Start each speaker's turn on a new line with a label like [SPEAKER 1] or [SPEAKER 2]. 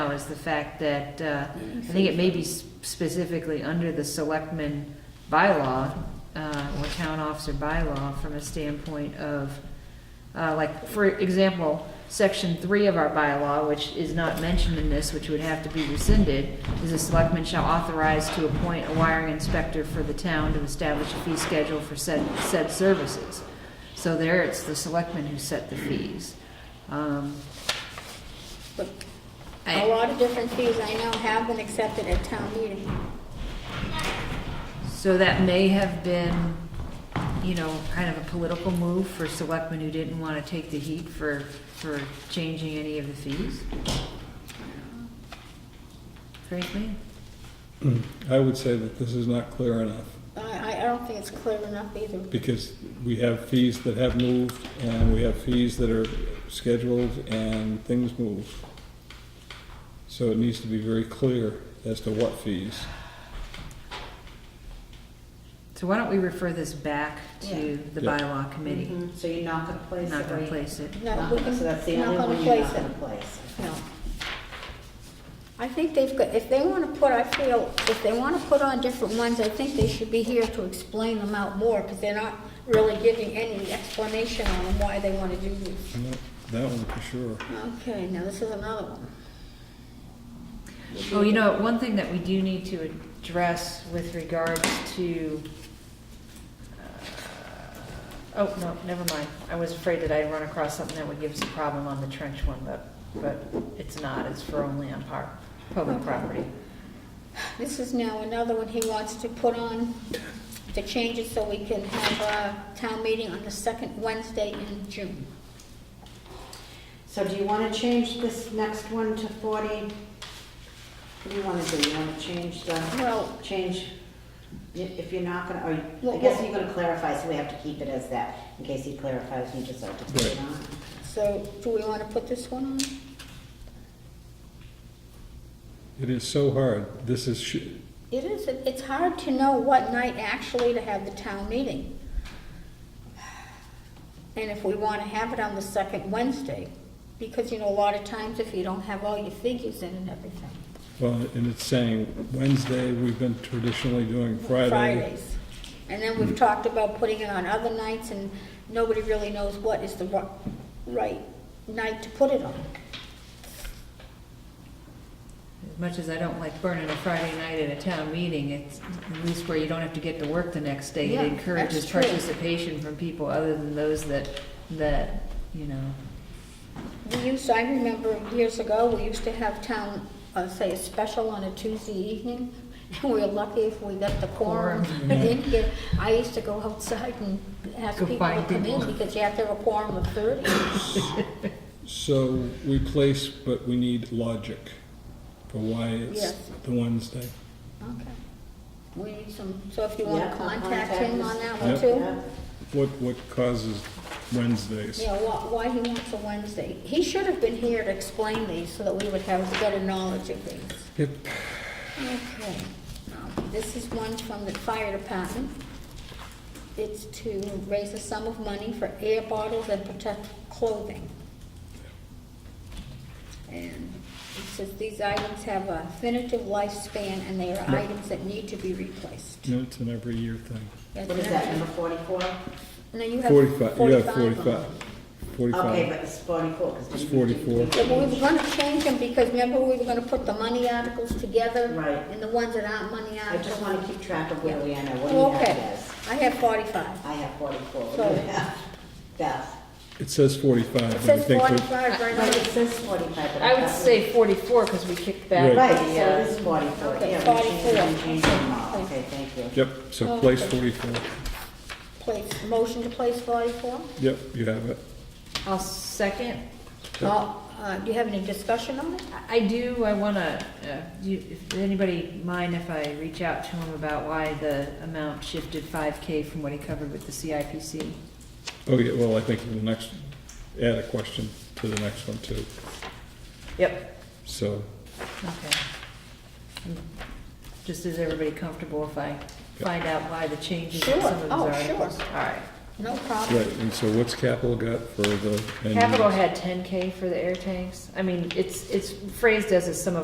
[SPEAKER 1] now is the fact that, uh, I think it may be s- specifically under the selectmen bylaw, uh, or town officer bylaw, from a standpoint of, uh, like, for example, section three of our bylaw, which is not mentioned in this, which would have to be rescinded, is the selectmen shall authorize to appoint a wiring inspector for the town to establish a fee schedule for said, said services. So there, it's the selectmen who set the fees. Um,
[SPEAKER 2] But
[SPEAKER 1] I-
[SPEAKER 2] A lot of different fees I know have been accepted at town meeting.
[SPEAKER 1] So that may have been, you know, kind of a political move for selectmen who didn't want to take the heat for, for changing any of the fees? Frankly?
[SPEAKER 3] Mm, I would say that this is not clear enough,
[SPEAKER 2] I, I don't think it's clear enough either.
[SPEAKER 3] because we have fees that have moved, and we have fees that are scheduled, and things move. So it needs to be very clear as to what fees.
[SPEAKER 1] So why don't we refer this back to the
[SPEAKER 3] Yeah.
[SPEAKER 1] bylaw committee?
[SPEAKER 4] Mhm, So you're not gonna place it?
[SPEAKER 1] Not
[SPEAKER 4] where
[SPEAKER 1] gonna
[SPEAKER 4] you-
[SPEAKER 1] place it.
[SPEAKER 2] No, we can-
[SPEAKER 4] So that's the
[SPEAKER 2] not
[SPEAKER 4] only
[SPEAKER 2] gonna
[SPEAKER 4] one you're
[SPEAKER 2] place
[SPEAKER 4] not
[SPEAKER 2] it.
[SPEAKER 4] gonna place.
[SPEAKER 2] No. I think they've got, if they want to put, I feel, if they want to put on different ones, I think they should be here to explain them out more, because they're not really giving any explanation on them why they want to do these.
[SPEAKER 3] No, That one for sure.
[SPEAKER 2] Okay, now this is another one.
[SPEAKER 1] Oh, you know, one thing that we do need to address with regards to, uh, oh, no, never mind. I was afraid that I'd run across something that would give us a problem on the trench one, but, but it's not. It's for only on par, public property.
[SPEAKER 2] This is now another one he wants to put on, to change it so we can have a town meeting on the second Wednesday in June.
[SPEAKER 4] So do you wanna change this next one to forty? What do you wanna do? You wanna change the,
[SPEAKER 2] Well,
[SPEAKER 4] change, i- if you're not gonna, or,
[SPEAKER 2] Well,
[SPEAKER 4] I guess
[SPEAKER 2] well-
[SPEAKER 4] you're gonna clarify, so we have to keep it as that, in case he clarifies, you just have to put it
[SPEAKER 3] Right.
[SPEAKER 4] on.
[SPEAKER 2] so do we want to put this one on?
[SPEAKER 3] It is so hard. This is, sh-
[SPEAKER 2] It is, it- it's hard to know what night actually to have the town meeting. And if we want to have it on the second Wednesday, because, you know, a lot of times if you don't have all your figures in and everything.
[SPEAKER 3] well, and it's saying Wednesday, we've been traditionally doing Friday.
[SPEAKER 2] Fridays. And then we've talked about putting it on other nights, and nobody really knows what is the ri- right night to put it on.
[SPEAKER 1] As much as I don't like burning a Friday night at a town meeting, it's at least where you don't have to get to work the next day.
[SPEAKER 2] Yeah,
[SPEAKER 1] It encourages
[SPEAKER 2] that's true.
[SPEAKER 1] participation from people other than those that, that, you know,
[SPEAKER 2] We used, I remember years ago, we used to have town, uh, say, a special on a Tuesday evening, and we were lucky if we got the quorum in here. I used to go outside and ask
[SPEAKER 1] Go
[SPEAKER 2] people to
[SPEAKER 1] find
[SPEAKER 2] come in,
[SPEAKER 1] people.
[SPEAKER 2] because you have to have a quorum of thirty.
[SPEAKER 3] So we place, but we need logic for why it's
[SPEAKER 2] Yes.
[SPEAKER 3] the Wednesday.
[SPEAKER 2] Okay. We need some, so if you wanna
[SPEAKER 4] Yeah,
[SPEAKER 2] contact him on that one
[SPEAKER 3] Yep.
[SPEAKER 2] too?
[SPEAKER 3] What, what causes Wednesdays?
[SPEAKER 2] Yeah, why, why he wants a Wednesday. He should have been here to explain these, so that we would have better knowledge of these.
[SPEAKER 3] Yep.
[SPEAKER 2] Okay, um, this is one from the fire department. It's to raise a sum of money for air bottles and protect clothing. And it says these items have a definitive lifespan and they are
[SPEAKER 3] Yeah.
[SPEAKER 2] items that need to be replaced.
[SPEAKER 3] No, it's an every year thing.
[SPEAKER 2] That's
[SPEAKER 4] What is
[SPEAKER 2] another-
[SPEAKER 4] that, number forty-four?
[SPEAKER 2] No, you have
[SPEAKER 3] Forty-five, you have
[SPEAKER 2] 45 of them.
[SPEAKER 3] forty-five.
[SPEAKER 4] Okay,
[SPEAKER 3] Forty-five.
[SPEAKER 4] but it's forty-four, because.
[SPEAKER 3] It's 44.
[SPEAKER 2] Yeah, but we were gonna change them because remember we were gonna put the money articles together?
[SPEAKER 4] Right.
[SPEAKER 2] And the ones that aren't money
[SPEAKER 4] I
[SPEAKER 2] articles.
[SPEAKER 4] just wanna keep track of where we are now, what do you
[SPEAKER 2] Oh,
[SPEAKER 4] have
[SPEAKER 2] Okay,
[SPEAKER 4] Beth?
[SPEAKER 2] I have forty-five.
[SPEAKER 4] I have forty-four, what
[SPEAKER 2] So-
[SPEAKER 4] do you have? Beth?
[SPEAKER 3] It says
[SPEAKER 2] It
[SPEAKER 3] forty-five, but I
[SPEAKER 2] says
[SPEAKER 3] think that,
[SPEAKER 2] forty-five right
[SPEAKER 4] But it
[SPEAKER 2] here.
[SPEAKER 4] says forty-five, but I
[SPEAKER 1] I would
[SPEAKER 4] thought we-
[SPEAKER 1] say forty-four, because we kicked back.
[SPEAKER 3] Right.
[SPEAKER 4] Right, so
[SPEAKER 1] the, uh,
[SPEAKER 4] it is forty-four,
[SPEAKER 2] Okay,
[SPEAKER 4] yeah, we
[SPEAKER 2] 44.
[SPEAKER 4] changed, we changed them all, okay, thank you.
[SPEAKER 3] yep, so place forty-four.
[SPEAKER 2] Place, motion to place forty-four?
[SPEAKER 3] Yep, you have it.
[SPEAKER 1] I'll second.
[SPEAKER 2] Well, uh, do you have any discussion on it?
[SPEAKER 1] I- I do, I want to, if anybody mind if I reach out to him about why the amount shifted 5K from what he covered with the CIPC?
[SPEAKER 3] Oh, yeah, well, I think the next, add a question to the next one too,
[SPEAKER 1] Yep.
[SPEAKER 3] so.
[SPEAKER 1] Okay. Just is everybody comfortable if I find out why the changes in
[SPEAKER 2] Sure.
[SPEAKER 1] some of his
[SPEAKER 2] Oh,
[SPEAKER 1] articles?
[SPEAKER 2] sure.
[SPEAKER 1] All right.
[SPEAKER 2] no problem.
[SPEAKER 3] Right, and so what's capital got for the? end
[SPEAKER 1] Capital
[SPEAKER 3] use?
[SPEAKER 1] had ten K for the air tanks. I mean, it's, it's phrased as a sum of